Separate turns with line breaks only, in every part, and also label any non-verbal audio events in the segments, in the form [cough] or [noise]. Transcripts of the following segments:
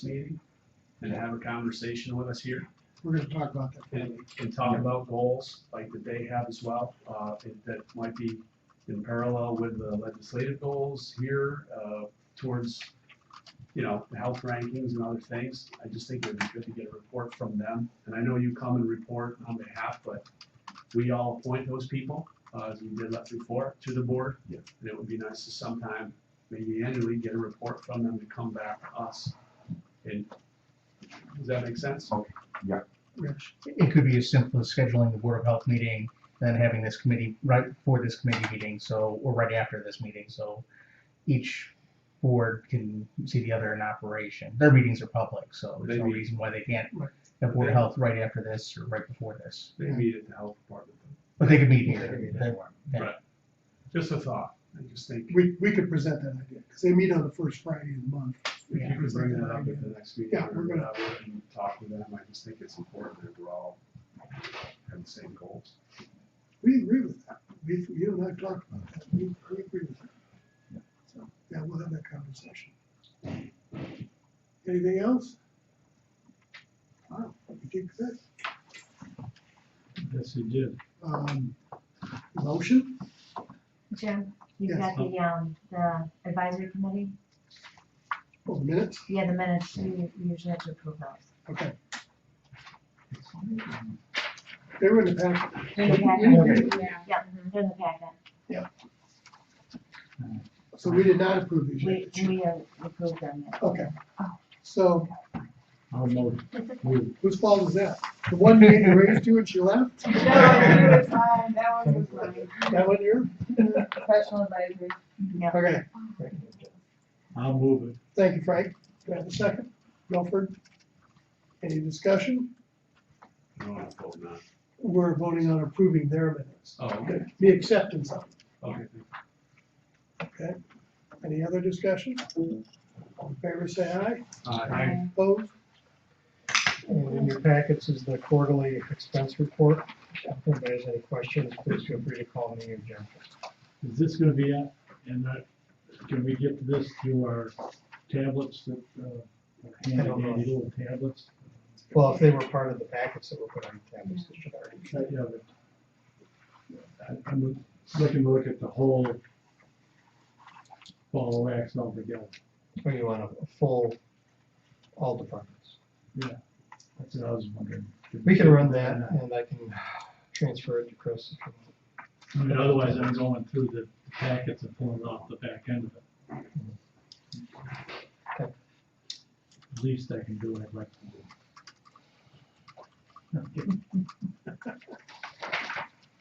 this meeting and have a conversation with us here
We're gonna talk about that.
and, and talk about goals like that they have as well, uh, it- that might be in parallel with the legislative goals here, uh, towards, you know, the health rankings and other things. I just think it would be good to get a report from them. And I know you come and report on behalf, but we all appoint those people, uh, as we did that before, to the board.
Yeah.
And it would be nice to sometime, maybe annually, get a report from them to come back to us. And, does that make sense?
Rich,
It could be as simple as scheduling the Board of Health meeting and then having this committee right before this committee meeting, so, or right after this meeting, so each board can see the other in operation. Their meetings are public, so there's no
Maybe-
reason why they can't have Board of Health right after this or right before this.
They meet at the health department.
But they could meet
Yeah, they
here.
meet at
They-
one.
yeah.
Right. Just a thought, I just think we
we, we could present that idea, because they meet on the first Friday of the month. We could
can bring
present
that up
idea.
at the next meeting.
Yeah, we're
or
gonna-
whatever, and Talk with them, I just think it's important that we're all have the same goals.
We agree with that. We, you and I talked about that. We, we agree with that. So, yeah, we'll have that conversation. Anything else? Wow, you did good.
Yes, you did.
Um, motion?
Jim, you've
Yes.
got the, um, the advisory committee,
Oh, minutes?
yeah, the minutes, you you usually have to approve those.
Okay. They were in the pack.
They're in the packet, yeah, mhm, they're in the packet,
So we did not approve these.
we,
yet, did you?
we uh, approved them, yeah.
Okay. So
I'll move, move.
whose fault is that? The one you raised to and she left?
[laughs] No, that was mine, that one was mine.
That one here?
Professional advisory.
Okay,
I'll move it.
thank you, Frank. Do I have a second? Milford? Any discussion?
No, I hope not.
We're voting on approving their minutes.
Oh, okay,
The acceptance of,
okay.
it, okay? Any other discussion? All in favor, say aye.
Uh,
Opposed?
And in your packets is the quarterly expense report. If anybody has any questions, please feel free to call me or Jim.
Is this gonna be, up? and that, can we get this through our tablets that, uh, are
I don't
handy
know.
dandy little tablets?
Well, if they were part of the packets that were put on the tablets, they should already.
Uh, Yeah, but I- I'm looking to look at the whole ball of wax altogether.
Or you want a full, all departments.
That's what I was wondering.
We can run that and I can transfer it to Chris. if you want.
I mean, otherwise I'm going through the packets and pulling off the back end of it.
Okay.
At least I can do what I'd like to do. Okay.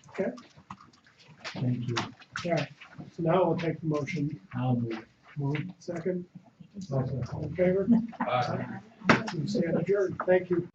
Okay.
Thank you.
All right, so now I'll take the motion.
I'll move.
Move, second,
it.
all in favor?
Aye.
We stand adjourned. Thank you.